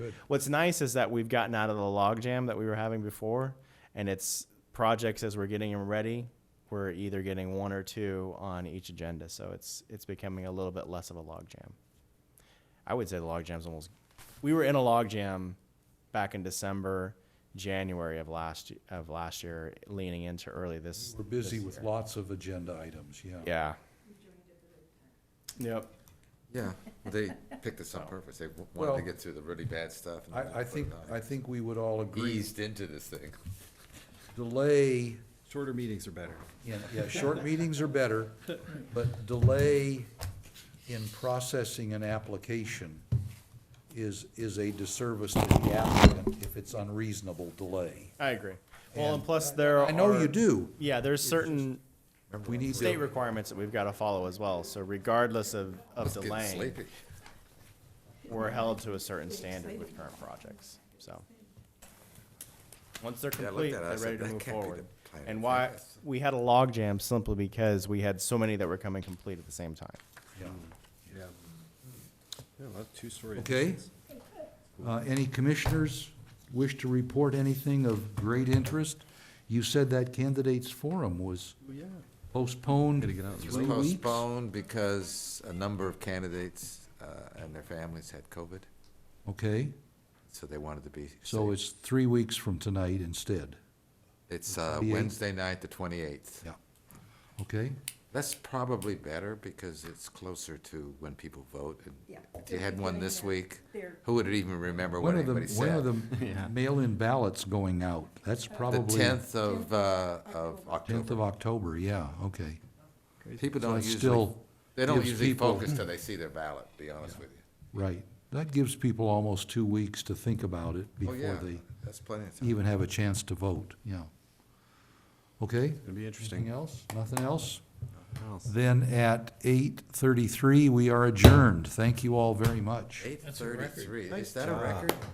good. What's nice is that we've gotten out of the logjam that we were having before, and it's projects as we're getting them ready. We're either getting one or two on each agenda, so it's it's becoming a little bit less of a logjam. I would say the logjam's almost. We were in a logjam back in December, January of last of last year, leaning into early this. We're busy this with year. lots of agenda items, yeah. Yeah. Yep. Yeah, they picked this on purpose. They w- wanted Well- to get through the really bad stuff. and then I, I put it think, on. I think we would all agree, Eased into this thing. delay, Shorter meetings are better. in yeah, short meetings are better, but delay in processing an application is, is a disservice to the applicant if it's unreasonable delay. I agree. Well, and And- plus there. I know are- you do. Yeah, there's certain We need state to, requirements that we've got to follow as well. So regardless of, of Getting delay, sleepy. we're held to a certain standard with current projects, so. Once they're Yeah, I looked complete, at it, I they're said, ready to "That move can't be forward. the plan And of why, progress." we had a logjam simply because we had so many that were coming complete at the same time. yeah. Yeah. Yeah, a lot of two-story. Okay. Uh, Any commissioners wish to report anything of great interest? You said that candidates forum was Oh, Yeah. postponed Gotta get out. three It was weeks? postponed because a number of candidates uh, and their families had COVID, Okay, so they wanted to be so safe. it's three weeks from tonight instead, It's uh, 28th. Wednesday night, the 28th. okay? That's probably better because it's closer to when people vote. and Yeah. If you had one this week, They're- who would even remember what When are the, anybody when are said? the mail-in ballots going out? That's The probably. 10th of, uh, of tenth of October. October, yeah, okay. People So don't it's usually, still, they don't gives usually people- focus till they see their ballot, to be honest with you. right. That gives people almost two weeks to think about it Oh, yeah, before they that's plenty of time. even have a chance to vote, yeah. Okay? Gonna be Anything interesting. else? Nothing else? else. Then at eight thirty-three, we are adjourned. Thank you all very much. Eight thirty-three, is that a job. record?